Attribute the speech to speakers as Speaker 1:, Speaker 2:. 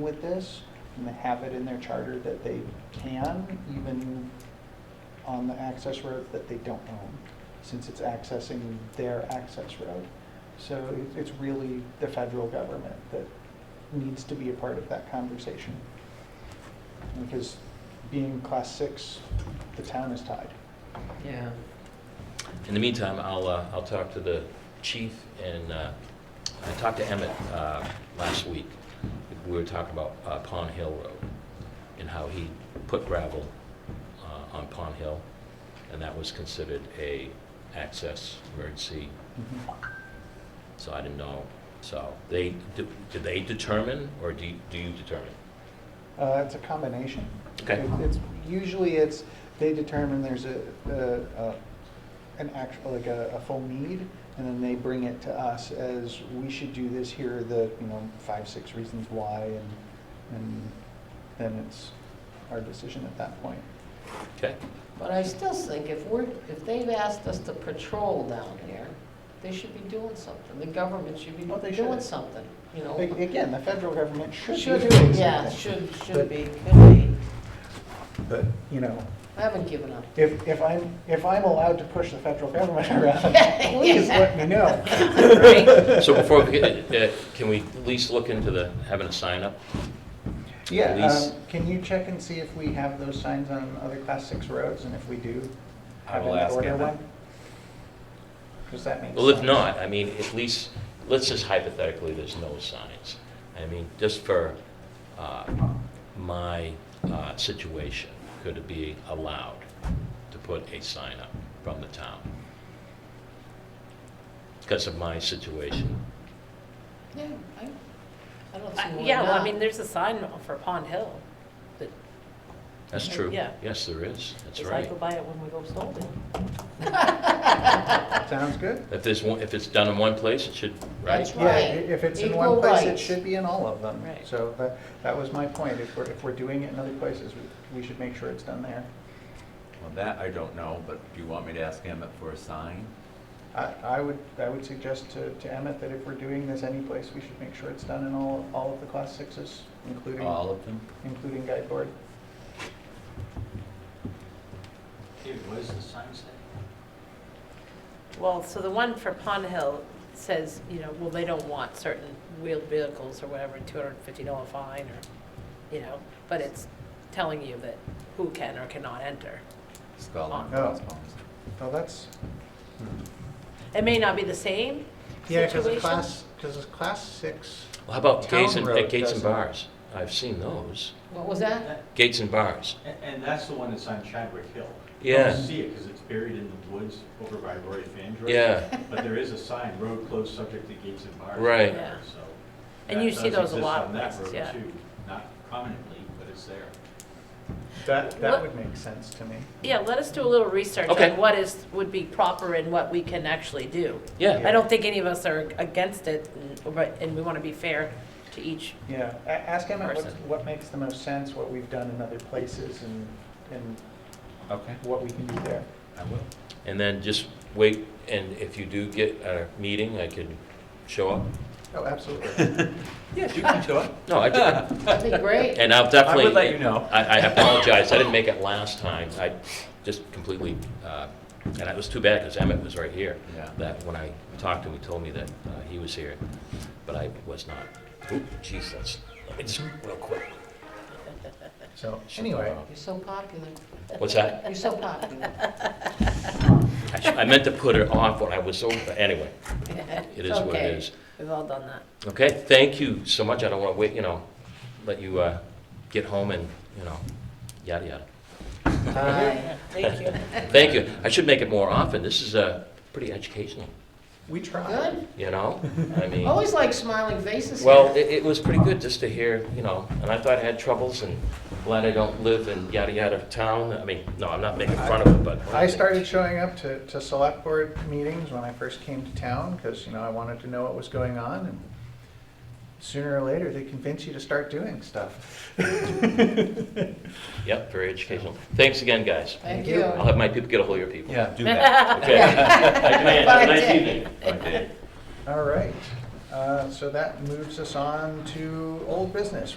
Speaker 1: with this and have it in their charter that they can, even on the access road that they don't own, since it's accessing their access road. So it- it's really the federal government that needs to be a part of that conversation. Because being class six, the town is tied.
Speaker 2: Yeah.
Speaker 3: In the meantime, I'll, uh, I'll talk to the chief and, uh, I talked to Emmett, uh, last week. We were talking about, uh, Pond Hill Road and how he put gravel, uh, on Pond Hill. And that was considered a access emergency, so I didn't know. So they, do do they determine or do, you- do you determine?
Speaker 1: Uh, It's a combination.
Speaker 3: Okay.
Speaker 1: It- It's, usually it's, they determine there's a, a- a- an actual, like a, a full need, and then they bring it to us as, we should do this, here are the, you know, five, six reasons why, and, and then it's our decision at that point.
Speaker 3: Okay?
Speaker 2: But I still think if we're, if they've asked us to patrol down here, they should be doing something. The government should be
Speaker 1: Well, Oh, they
Speaker 2: doing
Speaker 1: should.
Speaker 2: something, you
Speaker 1: A-
Speaker 2: know?
Speaker 1: Again, the federal government should be
Speaker 2: Should,
Speaker 1: doing something.
Speaker 2: yeah, should, should
Speaker 1: But-
Speaker 2: be, could be.
Speaker 1: But, you know,
Speaker 2: I haven't given up.
Speaker 1: if, if I'm, if I'm allowed to push the federal government around,
Speaker 2: Yeah.
Speaker 1: please let me know.
Speaker 3: So before, we get- uh, can we at least look into the, having a sign up?
Speaker 1: Yeah,
Speaker 3: Police.
Speaker 1: um, can you check and see if we have those signs on other class six roads, and if we do,
Speaker 3: I
Speaker 1: have
Speaker 3: will
Speaker 1: them
Speaker 3: ask
Speaker 1: order
Speaker 3: Evan.
Speaker 1: one? Does that make sense?
Speaker 3: Well, if not, I mean, at least, let's just hypothetically, there's no signs. I mean, just for uh, my uh, situation, could it be allowed to put a sign up from the town? Because of my situation.
Speaker 2: Yeah, I, I don't see
Speaker 4: I-
Speaker 2: why
Speaker 4: Uh, Yeah, well, I
Speaker 2: not.
Speaker 4: mean, there's a sign for Pond Hill. that-
Speaker 3: That's true.
Speaker 4: Yeah.
Speaker 3: Yes, there is. That's
Speaker 4: Because I
Speaker 3: right.
Speaker 4: go by it when we go snowboarding.
Speaker 1: Sounds good.
Speaker 3: If there's one, if it's done in one place, it should,
Speaker 2: That's
Speaker 3: right?
Speaker 1: Yeah, i- if it's in one
Speaker 2: Equal
Speaker 1: place, it
Speaker 2: rights.
Speaker 1: should be in all of them.
Speaker 4: Right.
Speaker 1: So that, that was my point, if we're, if we're doing it in other places, we- we should make sure it's done there.
Speaker 5: Well, that I don't know, but do you want me to ask Emmett for a sign?
Speaker 1: I, I would, I would suggest to, to Emmett that if we're doing this any place, we should make sure it's done in all, all of the class sixes, including,
Speaker 5: All of them?
Speaker 1: including guide board.
Speaker 4: Well, so the one for Pond Hill says, you know, well, they don't want certain wheeled vehicles or whatever, two hundred and fifty dollar fine or, you know, but it's telling you that who can or cannot enter.
Speaker 5: Skull and
Speaker 1: Oh.
Speaker 5: crossbones.
Speaker 1: Oh, that's,
Speaker 4: It may not be the same
Speaker 1: Yeah, because
Speaker 4: situation.
Speaker 1: class, because it's class six.
Speaker 3: Well, How about gates and,
Speaker 1: Town road
Speaker 3: at gates and
Speaker 1: doesn't-
Speaker 3: bars? I've seen those.
Speaker 2: What was that?
Speaker 3: Gates and bars.
Speaker 6: A- And that's the one that's on Chadwick Hill.
Speaker 3: Yeah.
Speaker 6: You don't see it because it's buried in the woods over by Roy Fandroy.
Speaker 3: Yeah.
Speaker 6: But there is a sign, road closed subject to gates and bars.
Speaker 3: Right.
Speaker 4: Yeah.
Speaker 6: So
Speaker 4: And
Speaker 6: that
Speaker 4: you see
Speaker 6: does
Speaker 4: those a
Speaker 6: exist
Speaker 4: lot
Speaker 6: on
Speaker 4: of
Speaker 6: that
Speaker 4: places,
Speaker 6: road,
Speaker 4: yeah.
Speaker 6: too. Not prominently, but it's there.
Speaker 1: That, that
Speaker 4: What-
Speaker 1: would make sense to me.
Speaker 4: Yeah, let us do a little research
Speaker 3: Okay.
Speaker 4: on what is, would be proper and what we can actually do.
Speaker 3: Yeah.
Speaker 4: I don't think any of us are against it, and- but, and we want to be fair to each.
Speaker 1: Yeah, a- ask Emmett what,
Speaker 4: Person.
Speaker 1: what makes the most sense, what we've done in other places and, and
Speaker 5: Okay,
Speaker 1: what we can do there.
Speaker 5: I will.
Speaker 3: And then just wait, and if you do get a meeting, I can show up.
Speaker 1: Oh, absolutely.
Speaker 5: Yes, you can show up.
Speaker 3: No, I,
Speaker 2: That'd be great.
Speaker 3: and I'll definitely.
Speaker 5: I would let you know.
Speaker 3: I, I apologize, I didn't make it last time, I just completely, uh, and it was too bad, because Emmett was right here.
Speaker 5: Yeah.
Speaker 3: That when I talked to him, he told me that uh, he was here, but I was not. Oop, jeez, that's, let me just, real quick.
Speaker 1: So, anyway,
Speaker 2: You're so popular.
Speaker 3: What's that?
Speaker 2: You're so popular.
Speaker 3: I sh- I meant to put it off when I was over, anyway, it is what
Speaker 4: Okay.
Speaker 3: it is.
Speaker 4: We've all done that.
Speaker 3: Okay, thank you so much, I don't want to wait, you know, let you uh, get home and, you know, yada yada.
Speaker 1: uh,
Speaker 4: Thank you.
Speaker 3: Thank you, I should make it more often, this is uh, pretty educational,
Speaker 1: we tried.
Speaker 2: Good.
Speaker 3: you know? I mean.
Speaker 2: Always like smiling faces.
Speaker 3: Well, it, it was pretty good just to hear, you know, and I thought I had troubles and glad I don't live in yada yada town. I mean, no, I'm not making fun of it, but.
Speaker 1: I started showing up to, to select board meetings when I first came to town because, you know, I wanted to know what was going on and sooner or later, they convince you to start doing stuff.
Speaker 3: Yep, very educational. Thanks again, guys.
Speaker 2: Thank
Speaker 1: you.
Speaker 2: you.
Speaker 3: I'll have my people get a hold of your people.
Speaker 5: Yeah, do that.
Speaker 3: Okay. Thank you, man. Have a nice evening.
Speaker 5: Okay.
Speaker 1: All right, uh, so that moves us on to old business.